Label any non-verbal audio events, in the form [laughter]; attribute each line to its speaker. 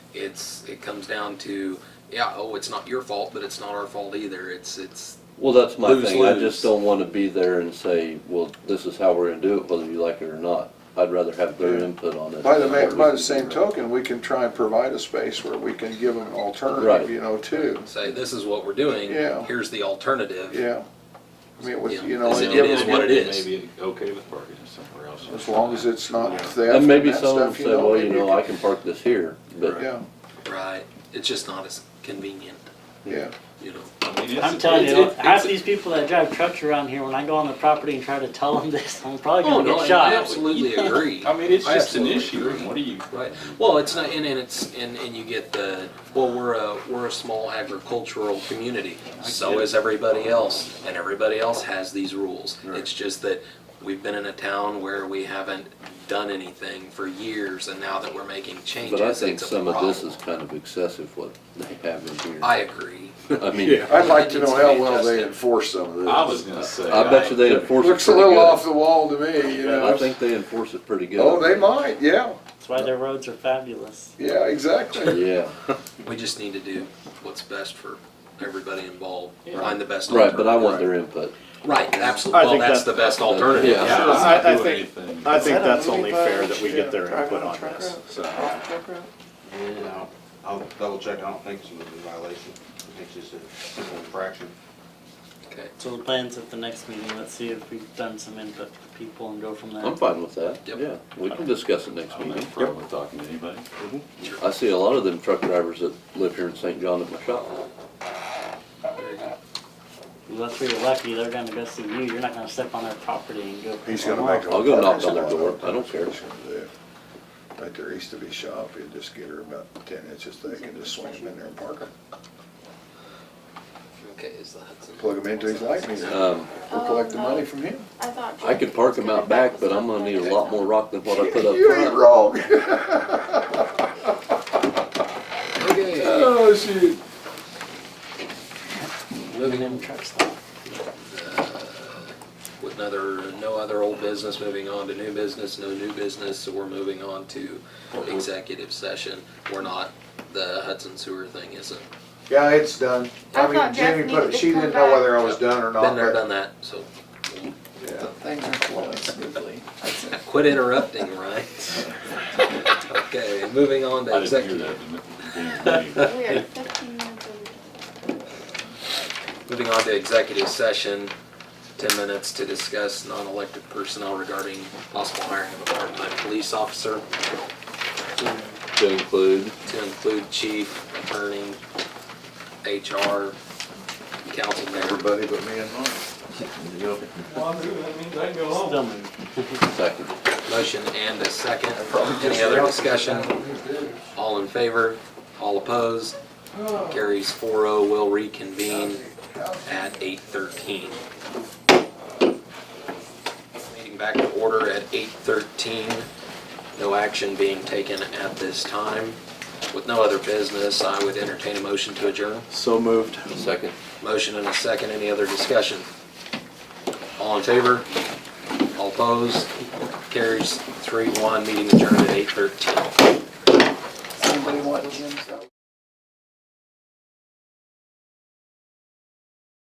Speaker 1: it's, it comes down to, yeah, oh, it's not your fault, but it's not our fault either. It's, it's,
Speaker 2: Well, that's my
Speaker 1: Lose,
Speaker 2: thing. I
Speaker 1: lose.
Speaker 2: just don't want to be there and say, well, this is how we're gonna do it, whether you like it or not. I'd rather have their input on it.
Speaker 3: By the, ma- by the same token, we can try and provide a space where we can give them an
Speaker 2: Right.
Speaker 3: alternative, you know, too.
Speaker 1: say, this is what we're doing.
Speaker 3: Yeah.
Speaker 1: Here's the alternative.
Speaker 3: Yeah. I mean, with,
Speaker 1: Yeah.
Speaker 3: you know,
Speaker 1: Is
Speaker 3: and
Speaker 1: it-
Speaker 3: give
Speaker 1: is
Speaker 3: them-
Speaker 1: what it is.
Speaker 4: Maybe okay with parking it somewhere else.
Speaker 3: as long as it's not theft
Speaker 2: And maybe
Speaker 3: that
Speaker 2: some will
Speaker 3: stuff,
Speaker 2: say, well, you
Speaker 3: maybe
Speaker 2: know, I can park this here, but
Speaker 3: Yeah,
Speaker 1: Right. It's just not as convenient,
Speaker 3: yeah.
Speaker 1: you know?
Speaker 5: I'm telling you, half
Speaker 4: it's-
Speaker 5: these people that drive trucks around here, when I go on the property and try to tell them this, [laughs] I'm probably
Speaker 1: Oh,
Speaker 5: gonna
Speaker 1: no, and
Speaker 5: get
Speaker 1: I
Speaker 5: shot. [laughs]
Speaker 1: absolutely agree.
Speaker 4: I mean, it's
Speaker 1: I
Speaker 4: just an
Speaker 1: absolutely
Speaker 4: issue,
Speaker 1: agree.
Speaker 4: and what do you?
Speaker 1: Right. Well, it's not, and, and it's, and, and you get the, well, we're a, we're a small agricultural community. So is everybody else, and everybody else has these rules. It's just that we've been in a town where we haven't done anything for years, and now that we're making changes,
Speaker 2: but I think
Speaker 1: it's a
Speaker 2: some of this is
Speaker 1: problem.
Speaker 2: kind of excessive what they have in here.
Speaker 1: I agree.
Speaker 2: I mean,
Speaker 3: I'd like to
Speaker 1: It needs
Speaker 3: know
Speaker 1: to
Speaker 3: how
Speaker 1: be
Speaker 3: well they
Speaker 1: adjusted.
Speaker 3: enforce some of this.
Speaker 4: I was gonna say.
Speaker 2: I bet you they enforce it
Speaker 3: Looks a
Speaker 2: pretty
Speaker 3: little off
Speaker 2: good.
Speaker 3: the wall to me, you know.
Speaker 2: I think they enforce it pretty good.
Speaker 3: Oh, they might, yeah,
Speaker 5: That's why their roads are fabulous.
Speaker 3: yeah, exactly.
Speaker 2: Yeah,
Speaker 1: We just need to do what's best for everybody involved,
Speaker 4: Yeah.
Speaker 1: find the best
Speaker 2: right, but I
Speaker 1: alternative.
Speaker 2: want their input.
Speaker 1: Right,
Speaker 6: I
Speaker 1: absolutely. Well,
Speaker 6: think
Speaker 1: that's
Speaker 6: that-
Speaker 1: the best alternative.
Speaker 2: Yeah.
Speaker 4: Yeah,
Speaker 6: Sure,
Speaker 4: I'm
Speaker 6: I-
Speaker 4: not
Speaker 6: I
Speaker 4: doing
Speaker 6: think-
Speaker 4: anything,
Speaker 6: I think
Speaker 7: Is that a
Speaker 6: that's only
Speaker 7: movie
Speaker 6: fair
Speaker 7: badge?
Speaker 6: that we
Speaker 7: Yeah,
Speaker 6: get their
Speaker 7: drive
Speaker 6: input
Speaker 7: a
Speaker 6: on
Speaker 7: truck
Speaker 6: this.
Speaker 7: route.
Speaker 4: so.
Speaker 7: Drive a truck route.
Speaker 8: I'll- I'll double check, I don't think it's a moving violation, I think it's just a simple infraction.
Speaker 1: Okay.
Speaker 5: So the plans at the next meeting, let's see if we've done some input for people and go from there.
Speaker 2: I'm fine with that.
Speaker 1: Yep.
Speaker 2: Yeah, we can discuss it next
Speaker 4: I'm not
Speaker 2: meeting.
Speaker 4: afraid of talking to anybody.
Speaker 2: I see a lot of them truck drivers that live here in St. John at my shop.
Speaker 1: Very good.
Speaker 5: Unless we were lucky, they're gonna go see you, you're not gonna step on their property and go.
Speaker 3: He's gonna make a.
Speaker 2: I'll go knock on their door. I don't care.
Speaker 3: Like there used to be shop, you just get her about ten inches thick and just swing them in there and park them,
Speaker 1: Okay, is the Hudson?
Speaker 3: plug them into his light meter.
Speaker 2: Um,
Speaker 3: We'll collect the money from him.
Speaker 7: I thought.
Speaker 2: I could park them out back, but I'm gonna need a lot more rock than what I put up
Speaker 3: You ain't
Speaker 2: front.
Speaker 3: wrong.
Speaker 1: Okay,
Speaker 3: Oh, shoot.
Speaker 1: moving on.
Speaker 5: Them trucks stop.
Speaker 1: With another, no other old business, moving on to new business, no new business, so we're moving on to executive session. We're not, the Hudson sewer thing isn't.
Speaker 8: Yeah, it's done.
Speaker 7: I
Speaker 8: I
Speaker 7: thought
Speaker 8: mean,
Speaker 7: Jeff
Speaker 8: Jamie put,
Speaker 7: needed
Speaker 8: it-
Speaker 7: to
Speaker 8: she
Speaker 7: come
Speaker 8: didn't know whether I
Speaker 1: back.
Speaker 8: was done or not.
Speaker 1: Been there,
Speaker 8: but-
Speaker 1: done that, so
Speaker 8: Yeah.
Speaker 7: Things are flowing smoothly. That's it.
Speaker 1: quit interrupting, right? [laughs] Okay, moving on to
Speaker 4: I didn't hear
Speaker 1: executive,
Speaker 4: that. in the beginning [laughs] of the meeting.
Speaker 7: We are fifteen minutes over.
Speaker 1: moving on to executive session. Ten minutes to discuss non-elected personnel regarding possible hiring of a part-time police officer.
Speaker 2: To include,
Speaker 1: to include chief, attorney, HR, council member.
Speaker 3: Everybody but me and mine.
Speaker 5: Still moving.
Speaker 2: second.
Speaker 1: Motion and a second. Any other discussion? All in favor? All opposed? Carries 4-0. Will reconvene at 8:13. Meeting back to order at 8:13. No action being taken at this time. With no other business, I would entertain a motion to adjourn.
Speaker 6: So moved.
Speaker 2: Second.
Speaker 1: Motion and a second, any other discussion? All in favor? All opposed? Carries three one, meeting adjourned at eight thirteen.
Speaker 8: Somebody want Jim's out.